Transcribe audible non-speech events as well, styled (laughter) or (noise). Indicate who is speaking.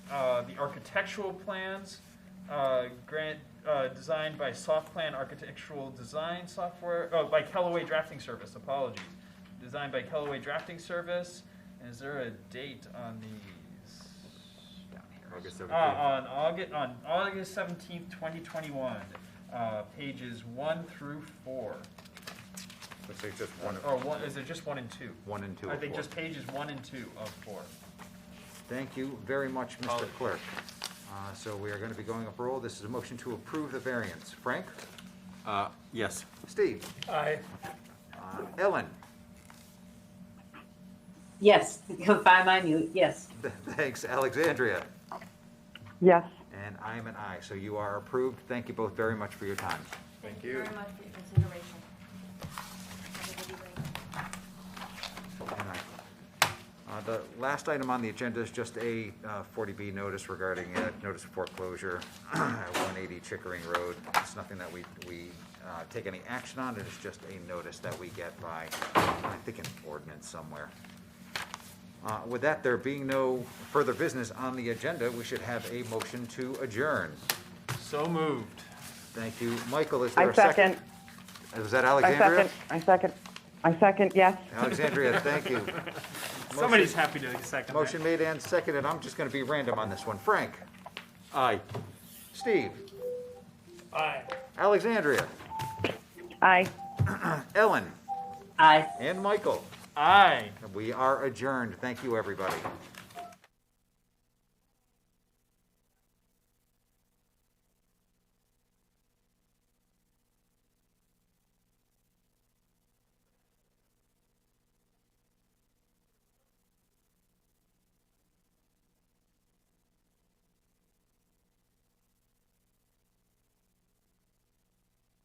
Speaker 1: uh, the architectural plans, uh, grant, uh, designed by Soft Plan Architectural Design Software, oh, by Callaway Drafting Service, apologies. Designed by Callaway Drafting Service, And is there a date on these?
Speaker 2: August
Speaker 1: Uh,
Speaker 2: 17th.
Speaker 1: on August, on August seventeenth, twenty twenty-one, uh, pages one through four.
Speaker 2: Let's take just one,
Speaker 1: Or one, is it just one and two?
Speaker 2: one and two.
Speaker 1: ah. Oh. I
Speaker 2: of
Speaker 1: think
Speaker 2: four.
Speaker 1: just pages one and two of four.
Speaker 2: Thank you very much, Mr.
Speaker 1: Apologies.
Speaker 2: Clerk. Uh, So we are going to be going up roll. This is a motion to approve the variance. Frank?
Speaker 3: Uh, yes.
Speaker 2: Steve?
Speaker 4: Aye.
Speaker 2: Uh, Ellen? (laughs)
Speaker 5: Yes, (laughs) by my mute, yes.
Speaker 2: Thanks, Alexandria?
Speaker 6: yes.
Speaker 2: And I am an aye, so you are approved. Thank you both very much for your time.
Speaker 7: Thank you very much for your consideration. Have a good evening.
Speaker 2: And I- uh, The last item on the agenda is just a uh, 40B notice regarding uh notice of foreclosure (clears throat) at 180 Chickering Road. It's nothing that we, we uh, take any action on, it is just a notice that we get by, I think, an ordinance somewhere. Uh, With that, there being no further business on the agenda, we should have a motion to adjourn.
Speaker 3: So moved.
Speaker 2: Thank you. Michael, is there
Speaker 6: I
Speaker 2: a second?
Speaker 6: second,
Speaker 2: Was that
Speaker 6: I
Speaker 2: Alexandria?
Speaker 6: second, I second, I second, yes.
Speaker 2: Alexandria, thank you.
Speaker 4: Somebody's happy to second that.
Speaker 2: Motion made and seconded. I'm just going to be random on this one. Frank?
Speaker 3: Aye.
Speaker 2: Steve?
Speaker 4: Aye.
Speaker 2: Alexandria?
Speaker 6: Aye.
Speaker 2: Ellen?
Speaker 5: Aye.
Speaker 2: And Michael?
Speaker 4: Aye.
Speaker 2: We are adjourned. Thank you, everybody.